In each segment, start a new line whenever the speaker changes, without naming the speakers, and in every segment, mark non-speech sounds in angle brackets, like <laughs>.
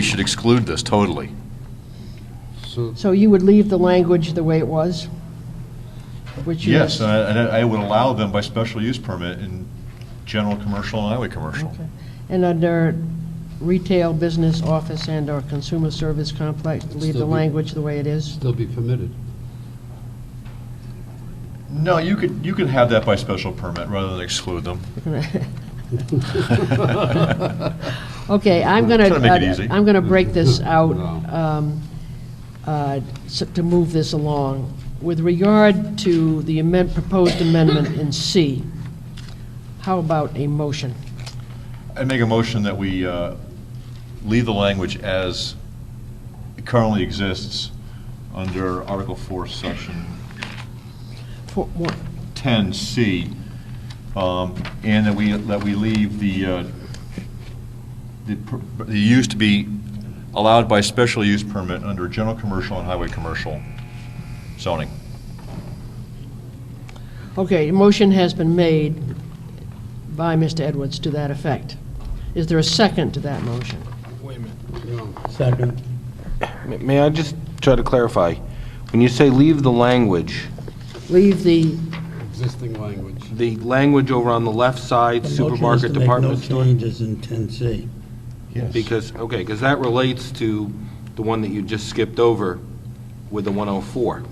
We should exclude this totally.
So,
So you would leave the language the way it was? Which is-
Yes, and I, and I would allow them by special use permit in general commercial and highway commercial.
Okay. And under retail, business, office, and/or consumer service complex, leave the
Still be-
language the way it is?
still be permitted.
No, you could, you could have that by special permit rather than exclude them.
Okay, I'm going
Trying to make it easy.
to, I'm going to
<laughs>
break this out
No.
um, uh, s- to move this along. With regard to the amend, proposed amendment in C, how about a motion?
I'd make a motion that we uh, leave the language as it currently exists under Article 4, Section
For- what-
10C, um, and that we, that we leave the, uh, the per- the use to be allowed by special use permit under general commercial and highway commercial zoning.
Okay, a motion has been made by Mr. Edwards to that effect. Is there a second to that motion?
Second.
May- May I just try to clarify? When you say leave the language,
Leave the,
Existing language.
the language over on the left side, supermarket, department
The
store?
motion is to make no changes in 10C.
Because, okay, because that relates to the one that you just skipped over with the 104.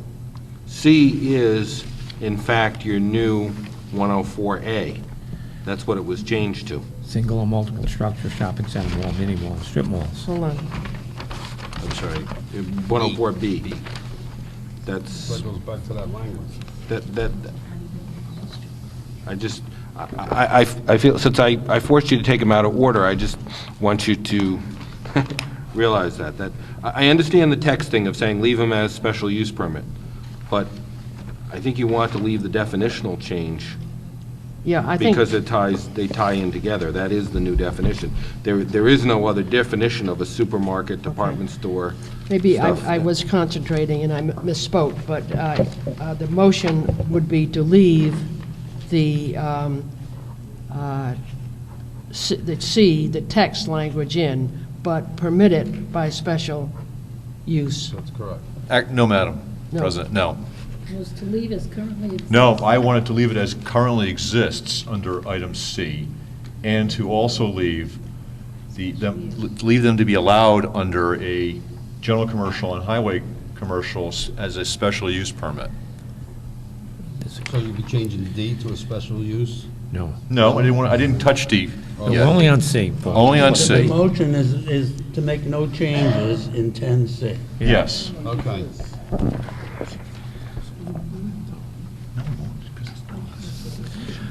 C is, in fact, your new 104A. That's what it was changed to.
Single or multiple structure, shopping center mall, mini mall, strip malls.
hold on,
I'm sorry.
104B. That's,
That goes back to that language.
that, that, I just, I, I, I- I feel, since I, I forced you to take them out of order, I just want you to <laughs> realize that, that, I, I understand the texting of saying leave them as special use permit, but I think you want to leave the definitional change
yeah, I think,
because it ties, they tie in together. That is the new definition. There, there is no other definition of a supermarket, department store.
maybe
stuff
I I
that-
was concentrating and I misspoke, but uh, uh, the motion would be to leave the, um, uh, C- the C, the text language in, but permit it by special use.
That's correct.
Act- No, Madam
No.
President, no.
was to leave as currently.
No, I wanted to leave it as currently exists under item C, and to also leave the, them- leave them to be allowed under a general commercial and highway commercials as a special use permit.
So you'd be changing D to a special use?
No.
No, I didn't want, I didn't touch D.
Oh,
No, Only on C, Paul.
Only on
The
C,
motion is, is to make no changes in 10C.
yes.
Okay.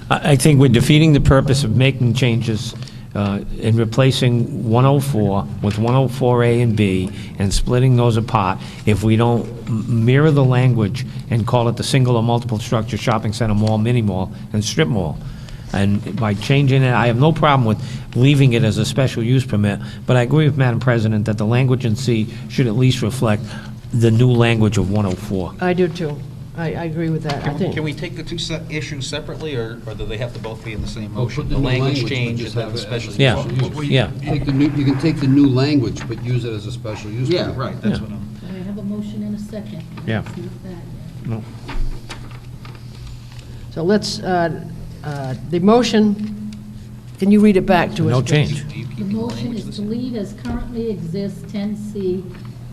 I I think we're defeating the purpose of making changes uh, and replacing 104 with 104A and B and splitting those apart if we don't m- mirror the language and call it the single or multiple structure shopping center mall, mini mall, and strip mall. And by changing it, I have no problem with leaving it as a special use permit, but I agree with Madam President that the language in C should at least reflect the new language of 104.
I do too. I, I agree with that, I think.
Can we take the two se- issues separately, or or do they have to both be in the same
Well,
motion?
put the
The
new
language
but
change and
just
then
have
the
it as
special.
a
Yeah,
special use.
well, yeah.
Take the new, you can take the new language, but use it as a special use.
Yeah,
permit.
right, that's what I'm.
I have a motion and a second.
Yeah.
It's not that.
So let's, uh, uh, the motion, can you read it back to us?
No
please?
change.
The motion is to leave as currently exists 10C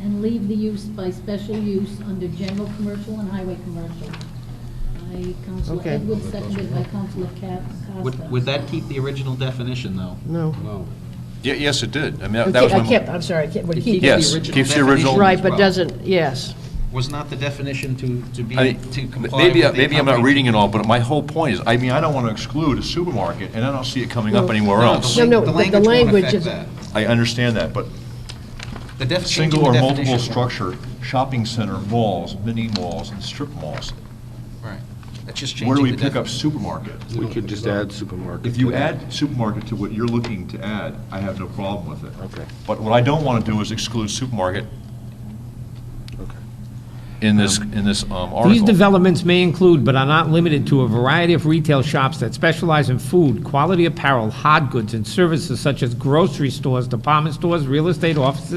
and leave the use by special use under general commercial and highway commercial. By Counselor
Okay.
Edwards, seconded by Counselor Ca- Costa.
Would, would that keep the original definition, though?
No.
No.
Ye- Yes, it did. I mean, that- that was
I
my,
kept, I'm sorry, I kept, we
It
keep.
keeps the
Yes,
original
keeps the
definition
original-
as
Right, but
well.
doesn't, yes.
Was not the definition to, to be,
I
to
mean,
comply with
maybe,
the.
maybe I'm not
accompanying-
reading it all, but my whole point is, I mean, I don't want to exclude a supermarket, and I don't see it coming up anywhere
No,
else.
the
No,
lang-
no,
the
but the
won't
language
affect
is-
that.
I understand that, but
The def- changing
single or
the
multiple
definition won't.
structure, shopping center, malls, mini malls, and strip malls.
Right. That's just
Where do
changing
we
the
pick up
definition.
supermarket?
We could just add supermarket.
If you
to that.
add supermarket to what you're looking to add, I have no problem with it.
Okay.
But what I don't want to do is exclude supermarket
Okay.
in this, in this um, article.
These developments may include, but are not limited to, a variety of retail shops that specialize in food, quality apparel, hard goods, and services such as grocery stores, department stores, real estate offices,